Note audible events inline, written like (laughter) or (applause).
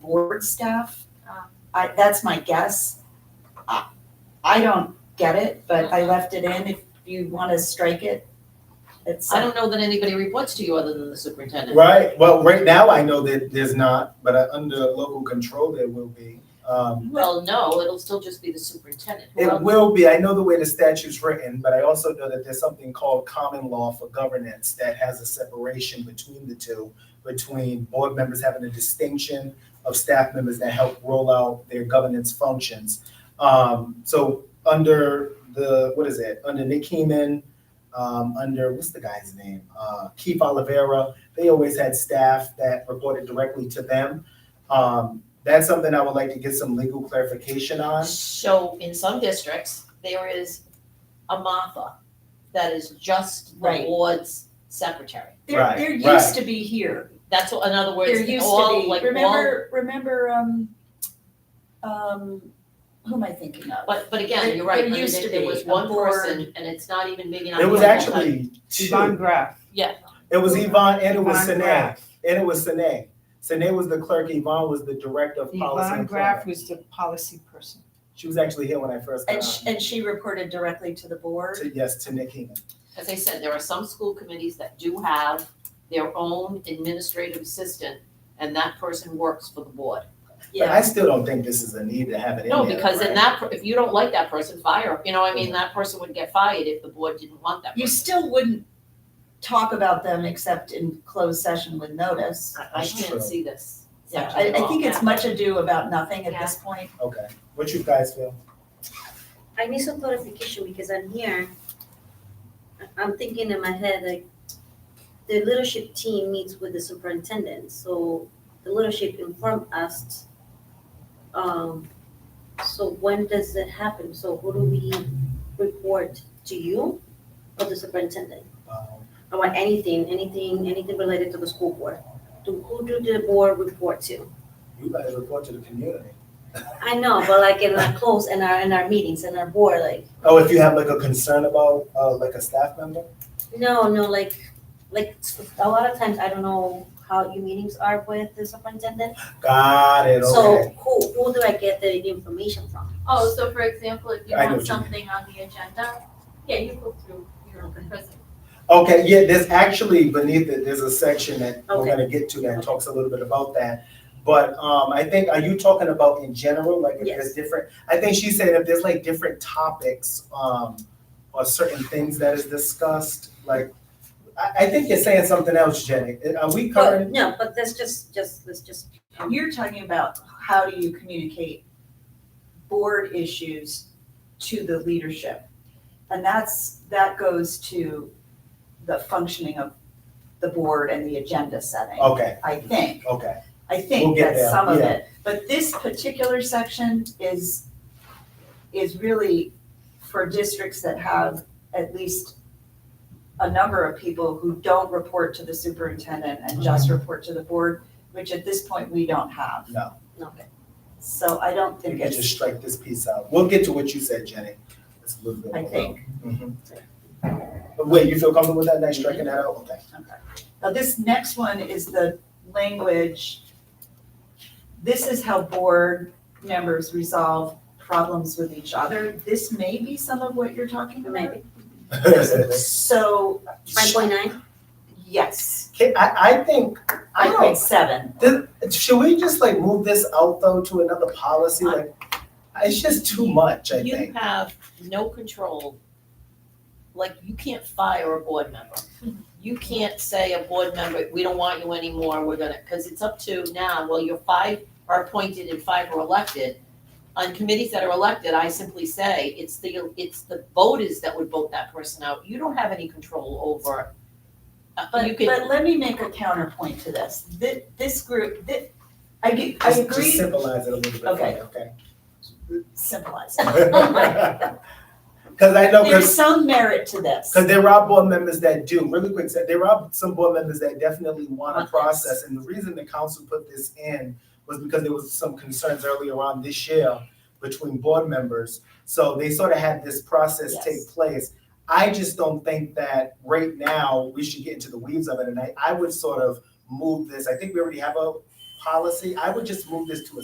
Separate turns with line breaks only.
board staff.
Um,
I, that's my guess. I, I don't get it, but I left it in. If you want to strike it, it's.
I don't know that anybody reports to you other than the superintendent.
(laughs) Right, well, right now I know that there's not, but uh, under local control there will be. Um,
Well, no, it'll still just be the superintendent. Who
It
else?
will be, I know the way the statute's written, but I also know that there's something called common law for governance that has a separation between the two, between board members having a distinction of staff members that help roll out their governance functions. Um, so under the, what is it, under Nick Heeman, um, under, what's the guy's name? Uh, Keith Olivera, they always had staff that reported directly to them. Um, that's something I would like to get some legal clarification on.
So in some districts, there is a Martha that is just the
Right.
board's secretary.
There,
Right,
there
right.
used to be here.
That's, what- in other words,
There used
all,
to
like,
be.
all,
Remember, remember, um, um, who am I thinking of?
but, but again,
There-
you're right,
there
I mean,
used to
there there
be
was
a
one
board.
person, and it's not even maybe not.
It was
even full-time.
actually
Yvonne
two.
Graff.
Yeah,
It was Yvonne and it was
Yvonne
Sine.
Graff.
And it was Sine. Sine was the clerk, Yvonne was the director of policy.
Yvonne
and
Graff
planning.
was the policy person.
She was actually here when I first got
And
on.
she, and she reported directly to the board.
To- Yes, to Nick Heeman.
as I said, there are some school committees that do have their own administrative assistant, and that person works for the board.
But
Yeah,
I still don't think this is a need to have it in there.
No, because in
right?
that, per- if you don't like that person, fire, 'em. you know, I mean, that person would get fired if the board didn't want that
you
person.
still wouldn't talk about them except in closed session with notice.
I I
That's true.
can't see this.
Yeah, I,
section at
I
all.
think it's much ado about nothing at this point.
Okay. What you guys feel?
I need some clarification because I'm here. I- I'm thinking in my head, like, the leadership team meets with the superintendent, so the leadership informed us. Um, so when does it happen? So who do we report to you or the superintendent?
Um,
Or anything, anything, anything related to the school board? To who do the board report to?
You guys report to the community.
I know, but like in our close, in our, in our meetings, in our board, like,
Oh, if you have like a concern about, uh, like a staff member?
No, no, like, like a lot of times I don't know how your meetings are with the superintendent.
Got it,
So
okay.
who, who do I get the information from?
Oh, so for example, if you
I know
want
what you mean.
something on the agenda, yeah, you go through your present.
Okay, yeah, there's actually beneath it, there's a section that we're
Okay.
gonna get to that talks a little bit about that. But um, I think, are you talking about in general, like if there's different, I think she said if there's like different topics, um, or certain things that is discussed, like, I, I think you're saying something else, Jenny. Uh, Are we
But,
covering?
no, but that's just, just, that's just, um,
You're talking about how do you communicate board issues to the leadership? And that's, that goes to the functioning of the board and the agenda setting,
Okay,
I think.
okay,
I
Oh. We'll
think
get
that's
there,
some of
yeah.
it. But this particular section is, is really for districts that have at least a number of people who don't report to the superintendent and just
Mm-hmm.
report to the board, which at this point, we don't have.
no.
no.
So I don't
We
think
can just
it's,
strike this piece out. We'll get to what you said, Jenny. It's a little bit.
I think,
Mhm. But wait, you feel comfortable with that, nice striking that out? Okay.
okay. Now, this next one is the language. This is how board members resolve problems with each other. This may be some of what you're talking about.
Maybe.
(laughs)
So,
Five point nine?
yes,
Okay, I, I think, I
five
don't,
point seven.
This- should we just like move this out though to another policy? Like, it's just too much, I
You
think.
have no control, like, you can't fire a board member. You can't say a board member, we don't want you anymore, we're gonna, because it's up to now, well, your five are appointed and five are elected. On committees that are elected, I simply say, it's the, it's the voters that would vote that person out, you don't have any control over. uh, you
But,
can-
but let me make a counterpoint to this. This, this group, this, I, ge- I
Just- Just
agree,
symbolize it a little bit, for me, okay? (laughs)
symbolize.
Cause I know,
There's
cause,
some merit to this.
'cause there are board members that do, really quick, so there are some board members that definitely want
Want
a
this.
process. And the reason the council put this in was because there was some concerns earlier on this year between board members. So they sort of had this process
Yes.
take place. I just don't think that right now we should get into the weeds of it. And I, I would sort of move this. I think we already have a policy, I would just move this to a